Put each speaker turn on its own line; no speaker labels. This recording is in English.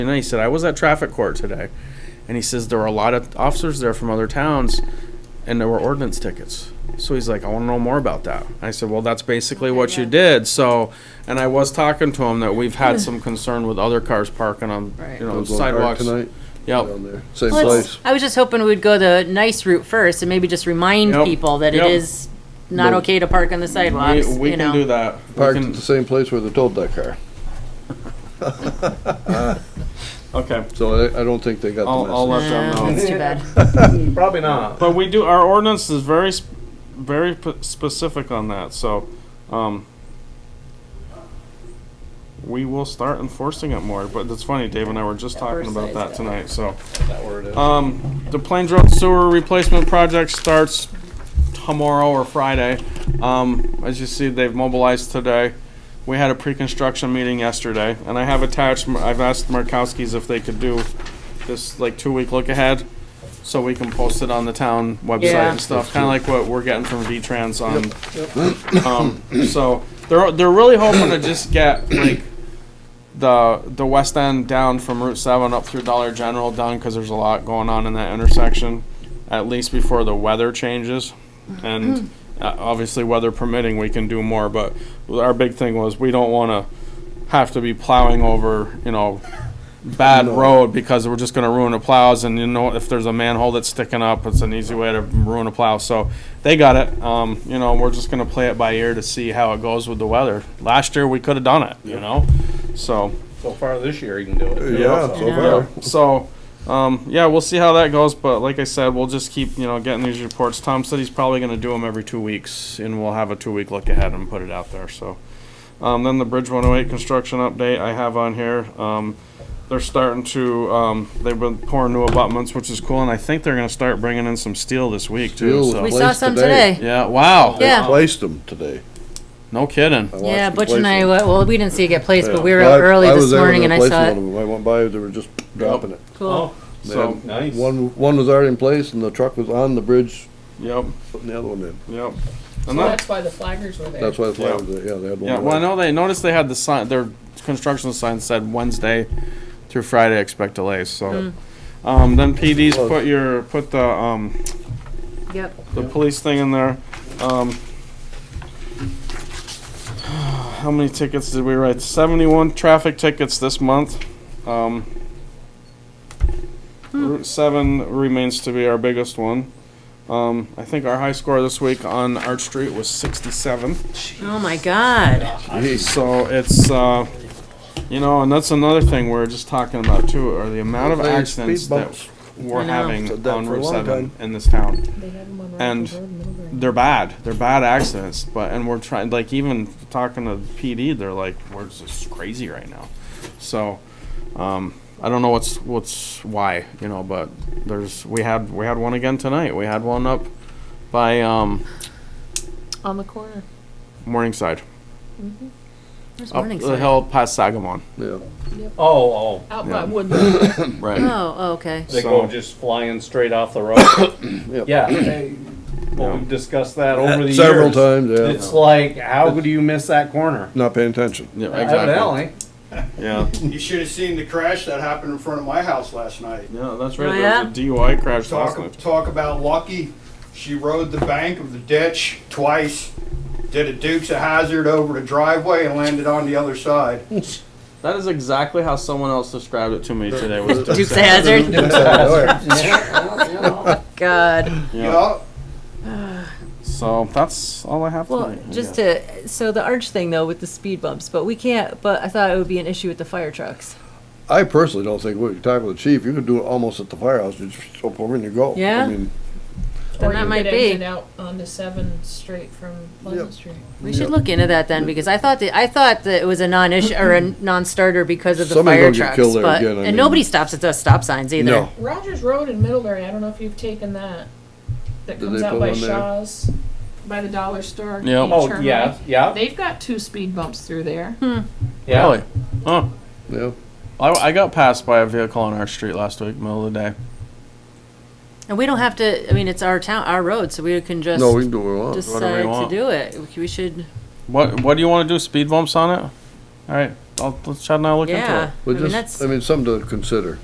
And then he said, I was at traffic court today. And he says, there were a lot of officers there from other towns and there were ordinance tickets. So he's like, I want to know more about that. And I said, well, that's basically what you did. So, and I was talking to him that we've had some concern with other cars parking on,
Right.
you know,
Those little park
sidewalks.
Tonight,
Yep.
down there, same
Well, it's-
place.
I was just hoping we'd go the nice route first and maybe just remind
Yep.
people that it
Yep.
is not
No.
okay to park on the sidewalks,
We, we
you
can do
know.
that. We
Parked
can-
at the same place where they towed that car.
Okay.
So I, I don't think they got
I'll, I'll
the
let
message.
them know.
Uh, That's too bad.
Probably not. But we do, our ordinance is very, sp- very p- specific on that, so, um, we will start enforcing it more, but it's funny, Dave and I were just talking about that tonight, so. Um, the Plains Road Sewer Replacement Project starts tomorrow or Friday. Um, as you see, they've mobilized today. We had a pre-construction meeting yesterday, and I have attached, I've asked Markowski's if they could do this, like, two-week look-ahead, so we can post it on the town website
Yeah.
and stuff, kinda like what we're getting from V-Trans on. Um, so, they're, they're really hoping to just get, like, the the west end down from Route Seven up through Dollar General done because there's a lot going on in that intersection, at least before the weather changes, and uh, obviously weather permitting, we can do more. But our big thing was we don't want to have to be plowing over you know bad road because we're just going to ruin the plows and you know if there's a manhole that's sticking up it's an easy way to ruin a plow so they got it um, you know we're just going to play it by ear to see how it goes with the weather last year we could have done it you know so
So far this year, you can do it.
Yeah,
So-
so
Yeah.
far.
so um, yeah we'll see how that goes but like i said we'll just keep you know getting these reports tom said he's probably going to do them every two weeks and we'll have a two week look ahead and put it out there so um, then the bridge 108 construction update i have on here um, they're starting to um, they've been pouring new abutments which is cool and i think they're going to start bringing in some steel this week too
Steel.
so.
We saw
Place
some
today.
today.
yeah wow
They
Yeah.
Placed them today.
no kidding
I watched
Yeah,
them
Butch
place
and I,
them.
wa- well, we didn't see it get placed, but we were
Yeah.
out
I-
early
I
this
was there when
morning and
they
I
placed
saw
one
it.
of them. I went by, they were just dropping it.
Cool.
They
So,
had-
Nice.
One, one was already in place and the truck was on the bridge
yep
putting the other one in.
yep
So
and that,
that's why the flaggers were there.
That's why the
Yeah.
flag was there, yeah, they had one.
Yeah, well, I
already.
know they noticed they had the sign, their construction sign said Wednesday through Friday, expect delays, so. Um, then PD's put your, put the, um,
Yep.
the police thing in there, um. How many tickets did we write? Seventy-one traffic tickets this month, um. Route seven remains to be our biggest one. Um, I think our high score this week on Arch Street was sixty-seven.
Oh, my God.
So it's, uh, you know, and that's another thing we're just talking about too, are the amount of
Those damn
accidents
speed
that
bumps.
we're
I know.
having
Said that
on
for a
Route
long
Seven
time.
in this town.
They had them on
And
Rockland Road and Middlebury.
They're bad, they're bad accidents, but, and we're trying, like even talking to PD, they're like, we're just crazy right now. So, um, I don't know what's, what's, why, you know, but there's, we had, we had one again tonight. We had one up by, um,
On the corner.
Morningside,
Where's
up the
Morningside?
hill past Sagamon.
Yeah.
Oh, oh,
Out
Yeah.
by Woodland.
Right.
Oh, oh, okay.
they
So-
go just flying straight off the road.
Yep.
Yeah, they- well,
Yeah.
we've discussed that over the
Several
years.
times, yeah.
It's like, how could you miss that corner?
Not paying attention.
Yeah, exactly.
Evidently.
Yeah.
You should have seen the crash that happened in front of my house last night.
Yeah, that's right.
Oh,
there was a DUI crash last
Talk,
night.
talk about lucky. She rode the bank of the ditch twice, did a Dukes of Hazard over the driveway and landed on the other side.
That is exactly how someone else described it to me today. Was
Duke's a hazard? God.
yeah.
Yup.
So that's all I have.
Well,
tonight, I
just
guess.
to, so the arch thing though with the speed bumps, but we can't, but I thought it would be an issue with the fire trucks.
I personally don't think, we could talk with the chief, you could do it almost at the firehouse, you just jump over and you go.
Yeah?
I mean,
Then
Or
that
you
might
could
be.
exit out onto Seven straight from Pleasant Street.
We should look into that then, because I thought that, I thought that it was a non-issue, or a non-starter because of the
Somebody
fire
gonna get
trucks,
killed there
but,
again, I
and
mean-
nobody stops at the stop signs either.
no,
Rogers Road in Middlebury, I don't know if you've taken that. That
Did
comes
they
out
put
by
one there?
Shaw's, by the dollar store.
Yeah.
you
Oh,
turn
yeah,
right.
yeah,
They've got two speed bumps through there.
yeah.
really, huh?
yeah.
I, I got passed by a vehicle on our street last week, middle of the day.
And we don't have to, I mean, it's our town, our road, so we can just
No, we can do what we want.
whatever we
decide to
want.
do it. We should,
What What do you want to do? Speed bumps on it? All right.
I'll, let Chad and I will look into it.
Yeah, I
Well,
mean,
just,
that's.
I mean, something to consider.